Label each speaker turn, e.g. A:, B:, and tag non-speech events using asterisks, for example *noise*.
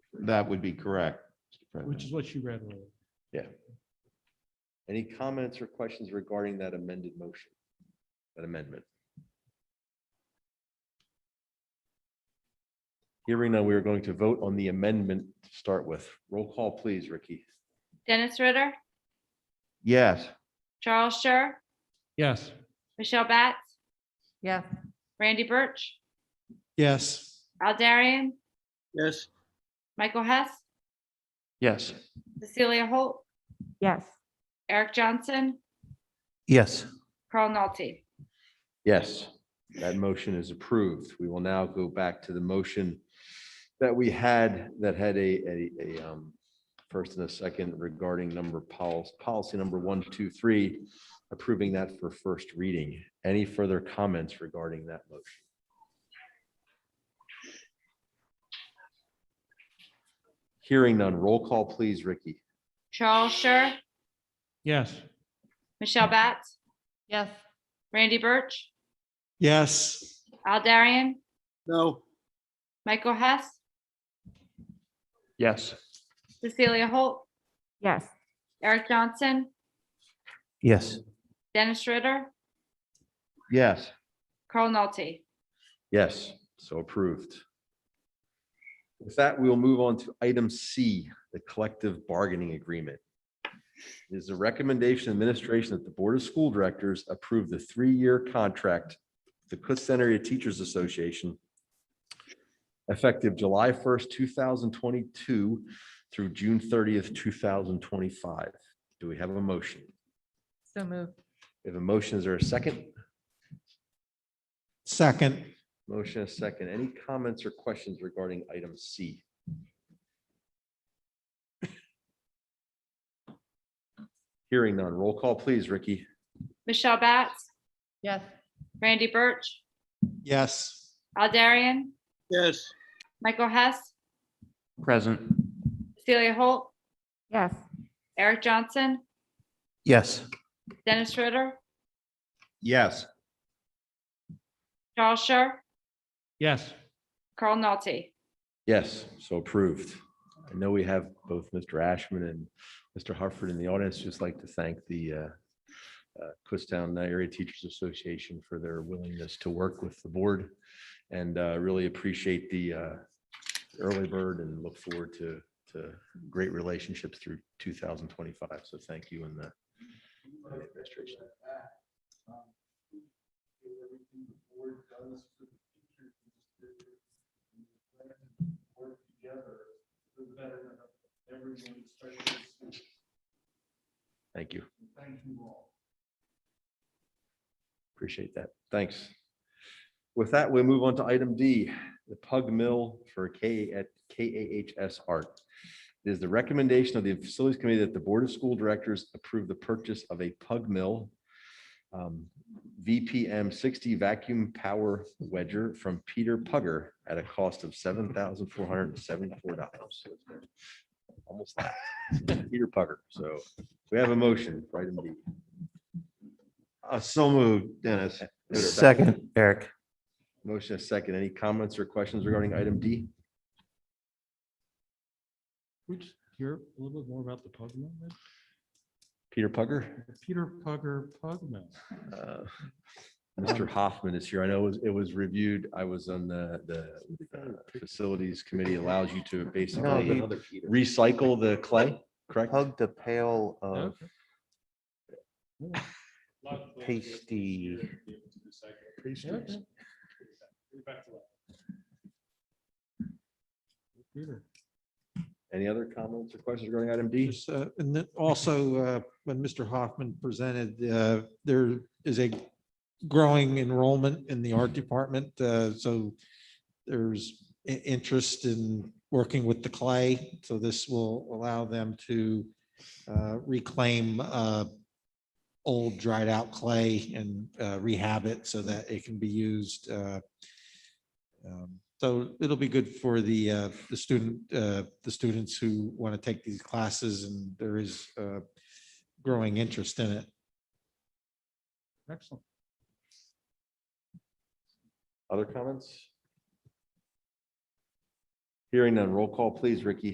A: That would be correct. Mr. President.
B: which is what you read. earlier.
C: Any comments or questions regarding that amended motion? That amendment? Hearing now, we are going to vote on the amendment to start with. Roll call, please, Ricky.
D: Dennis Ritter,
A: Yes,
D: Charles Scher,
B: Yes.
D: Michelle Batts,
E: yeah,
D: Randy Birch,
B: Yes.
D: Al Darian,
F: yes,
D: Michael Hess,
G: yes,
D: Cecilia Holt,
E: yes,
D: Eric Johnson,
H: yes,
D: Carl Nolte.
C: Yes, that motion is approved. We will now go back to the motion that we had that had a, a, a, um, first and a second regarding number policy, policy number one, two, three, approving that for first reading. Any further comments regarding that motion? Hearing none, roll call please, Ricky.
D: Charles Scher,
B: Yes.
D: Michelle Batts,
E: yes,
D: Randy Birch,
B: Yes.
D: Al Darian,
F: no,
D: Michael Hess,
G: yes,
D: Cecilia Holt,
E: yes,
D: Eric Johnson,
H: yes,
D: Dennis Ritter,
A: yes.
D: Carl Nolte.
C: Yes, so approved. With that, we will move on to item C, the collective bargaining agreement. It is the recommendation of administration that the Board of School Directors approve the three-year contract with the Kutztown Area Teachers Association effective July first, two thousand twenty-two through June thirtieth, two thousand twenty-five. Do we have a motion?
E: so moved,
C: If a motion, is there a second?
B: Second.
C: Motion is second. Any comments or questions regarding item C? Hearing none. Roll call, please, Ricky.
D: Michelle Batts,
E: yes,
D: Randy Birch,
B: Yes.
D: Al Darian,
F: yes,
D: Michael Hess,
G: present,
D: Cecilia Holt,
E: yes,
D: Eric Johnson,
H: yes.
D: Dennis Ritter,
A: Yes.
D: Charles Scher,
B: Yes.
D: Carl Nolte.
C: Yes, so approved. I know we have both Mr. Ashman and Mr. Hartford in the audience. Just like to thank the uh, uh, Kutztown Area Teachers Association for their willingness to work with the board and uh, really appreciate the uh, early bird and look forward to, to great relationships through 2025. So thank you and the and the administration. Thank you. Appreciate that. Thanks. With that, we move on to item D, the Pug Mill for K at KAHS Art. It is the recommendation of the Facilities Committee that the Board of School Directors approve the purchase of a Pug Mill um, VPM sixty vacuum power wedger from Peter Pugger at a cost of seven thousand four hundred and seventy-four dollars. Almost that. *laughs* Peter Pugger. So we have a motion for item D.
A: Uh, So moved, Dennis.
H: Second, Eric,
C: Motion is second. Any comments or questions regarding item D?
B: We just hear a little bit more about the pug mill. then?
C: Peter Pugger?
B: The Peter Pugger Pug Mill.
C: Uh, Mr. Hoffman is here. I know it was, it was reviewed. I was on the, the uh, facilities committee allows you to basically recycle the clay, correct?
H: hug the pail of
B: Okay.
H: pasty.
B: Okay. Peter.
C: Any other comments or questions regarding item D?
I: Yes, uh, And then also, uh, when Mr. Hoffman presented, uh, there is a growing enrollment in the art department. uh, So there's i- interest in working with the clay. So this will allow them to uh, reclaim uh, old dried out clay and uh, rehab it so that it can be used. uh, um, So it'll be good for the, uh, the student, uh, the students who want to take these classes and there is uh, growing interest in it.
B: Excellent.
C: Other comments? Hearing none. Roll call, please, Ricky.